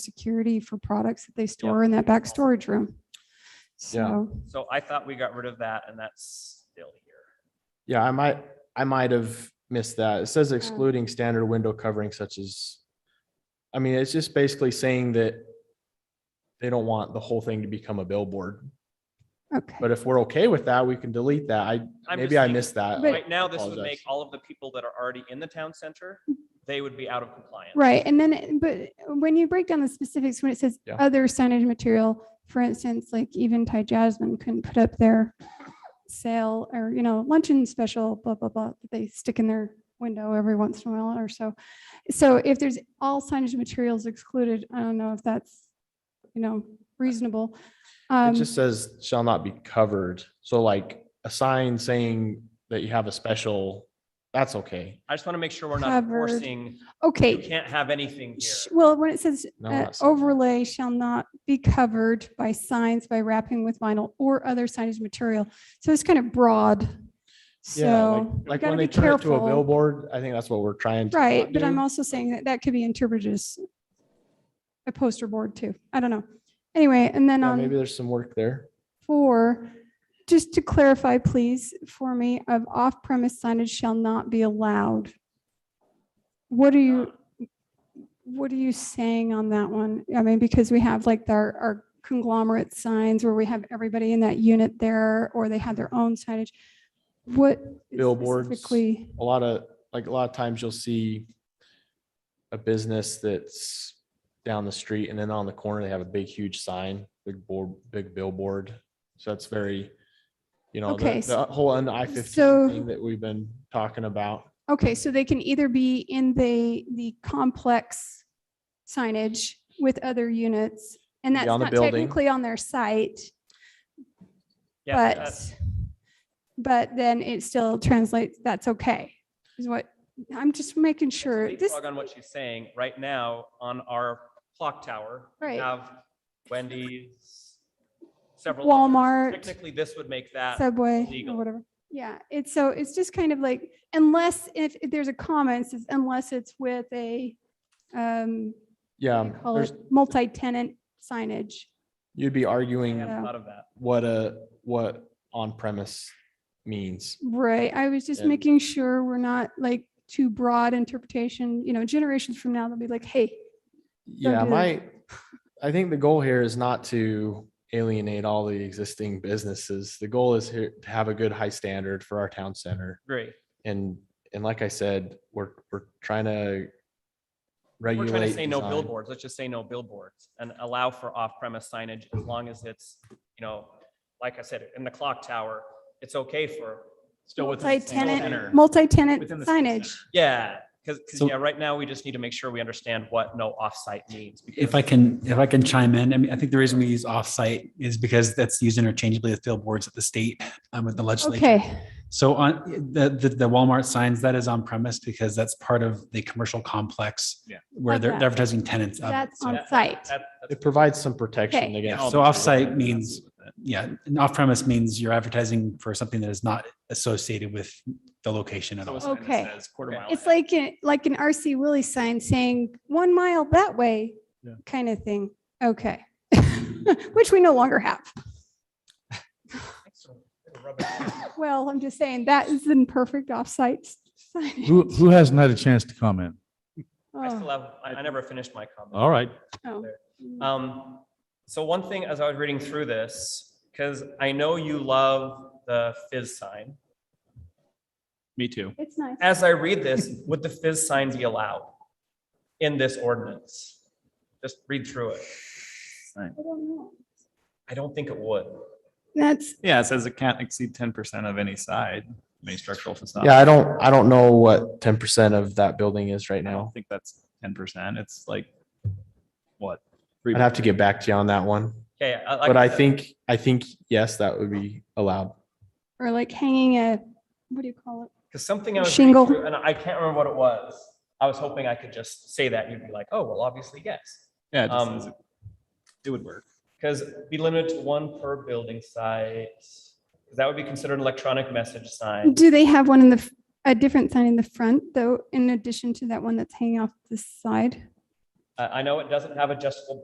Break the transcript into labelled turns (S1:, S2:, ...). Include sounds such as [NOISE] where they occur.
S1: security for products that they store in that back storage room. So,
S2: So I thought we got rid of that and that's still here.
S3: Yeah, I might, I might have missed that. It
S1: Mm.
S3: says excluding standard window covering such as, I mean, it's just basically saying that they don't want the whole thing to become a billboard.
S1: okay,
S3: But if we're okay with that, we can delete that. I,
S2: I'm
S3: maybe
S2: just
S3: I
S2: thinking-
S3: missed that.
S1: But-
S2: Right now, this would
S3: Apologize.
S2: make all of the people that are already in the town center, they would be out of compliance.
S1: right. And then, but when you break down the specifics, when it says
S3: Yeah.
S1: other signage material, for instance, like even Thai Jasmine couldn't put up their sale or, you know, luncheon special, blah, blah, blah, that they stick in their window every once in a while or so. So if there's all signage materials excluded, I don't know if that's, you know, reasonable.
S3: It
S1: Um,
S3: just says shall not be covered. So like a sign saying that you have a special, that's okay.
S2: I just want to make sure we're not
S1: Covered.
S2: enforcing, you
S1: Okay,
S2: can't have anything
S1: Sh-
S2: here.
S1: Well, when it says
S3: No,
S1: uh,
S3: not sign.
S1: overlay shall not be covered by signs by wrapping with vinyl or other signage material. So it's kind of broad.
S3: Yeah, like-
S1: So we
S3: Like
S1: gotta
S3: when
S1: be
S3: they turn it to a
S1: careful.
S3: billboard, I think that's what we're trying to.
S1: Right,
S3: not
S1: but I'm
S3: do.
S1: also saying that that could be interpreted as a poster board too. I don't know. Anyway, and then
S3: Yeah,
S1: on.
S3: Maybe there's some work there.
S1: Four, just to clarify, please, for me, of off-premise signage shall not be allowed. What are you, what are you saying on that one? I mean, because we have like our, our conglomerate signs where we have everybody in that unit there, or they have their own signage. What?
S3: Billboards.
S1: Specifically,
S3: a lot of, like, a lot of times you'll see a business that's down the street and then on the corner, they have a big, huge sign, big board, big billboard. So that's very, you know,
S1: Okay,
S3: the, the
S1: so-
S3: whole I
S1: so-
S3: fifteen thing that we've been talking about.
S1: okay, so they can either be in the, the complex signage with other units, and
S3: Be
S1: that's
S3: on the
S1: not
S3: building.
S1: technically on their site.
S2: Yeah,
S1: But,
S2: that's-
S1: but then it still translates, that's okay, is what, I'm just making sure
S2: Big
S1: this,
S2: plug On what she's saying, right now, on our clock tower, we
S1: Right.
S2: have Wendy's, several. others.
S1: Walmart.
S2: Technically, this would make that.
S1: Subway or
S2: illegal.
S1: whatever. Yeah, it's so, it's just kind of like, unless if if there's a comment, it says unless it's with a, um, what
S3: Yeah,
S1: do you call
S3: there's,
S1: it, multi-tenant signage.
S3: you'd be
S2: I
S3: arguing
S2: haven't
S1: Yeah.
S2: thought of that.
S3: what a, what on premise means.
S1: Right, I was just
S3: And-
S1: making sure we're not like too broad interpretation, you know, generations from now, they'll be like, hey,
S3: Yeah,
S1: do that.
S3: my, I think the goal here is not to alienate all the existing businesses. The goal is here to have a good high standard for our town center.
S2: Great.
S3: And, and like I said, we're, we're trying to
S2: We're
S3: regulate.
S2: trying to say no
S3: design.
S2: billboards. Let's just say no billboards and allow for off-premise signage as long as it's, you know, like I said, in the clock tower, it's okay for.
S4: Still within. the same center.
S1: multi-tenant, multi-tenant
S4: Within the same
S1: signage.
S2: Yeah, because,
S5: So-
S2: yeah, right now we just need to make sure we understand what no off-site means.
S5: If I
S2: because
S5: can, if I can chime in, I mean, I think the reason we use offsite is because that's used interchangeably with billboards at the state, um, with the legislature.
S1: Okay,
S5: So on the, the, the Walmart signs, that is on premise because that's part of the commercial complex.
S4: Yeah.
S5: Where they're
S1: Like
S5: they're advertising tenants of it.
S1: that's
S5: So,
S1: on
S2: that-
S1: site.
S2: that-
S3: It provides some protection
S1: Okay.
S5: yeah,
S3: against.
S2: Oh,
S4: Oh,
S5: so offsite means, yeah, and off premise means you're advertising for something that is not associated with the location at
S4: So a
S5: all.
S4: sign that
S1: Okay.
S4: says Quarter mile.
S1: It's like, a- like an RC Willie sign saying one mile that way
S4: Yeah.
S1: kind of thing. Okay. [LAUGHS] Which we no longer have. Well, I'm just saying that is in perfect offsite sign.
S6: Who, who hasn't had a chance to comment?
S2: I still
S1: Oh,
S2: have, I I never finished my comment.
S6: All right.
S1: oh.
S2: Um, so one thing as I was reading through this, because I know you love the fizz sign.
S4: Me too.
S1: It's nice.
S2: As I read this, would the fizz sign be allowed in this ordinance? Just read through it.
S1: I don't know.
S2: I don't think it would.
S1: That's,
S4: Yeah, it says it can't exceed ten percent of any side, any structural facade.
S3: Yeah, I don't, I don't know what ten percent of that building is right
S4: I
S3: now.
S4: don't think that's ten percent. It's like, what?
S3: I'd have to get back to you on that one,
S2: Okay. like
S3: but I
S2: said,
S3: think, I think, yes, that would be allowed.
S1: or like hanging a, what do you call it?
S2: Because something I was reading
S1: Shingle.
S2: through, and I can't remember what it was. I was hoping I could just say that. You'd be like, oh, well, obviously, yes.
S4: Yeah, it just
S2: Um,
S4: says it- it would work.
S2: Because be limited to one per building site. 'Cause That would be considered an electronic message sign.
S1: Do they have one in the, f- a different sign in the front though, in addition to that one that's hanging off the side?
S2: I, I know it doesn't have adjustable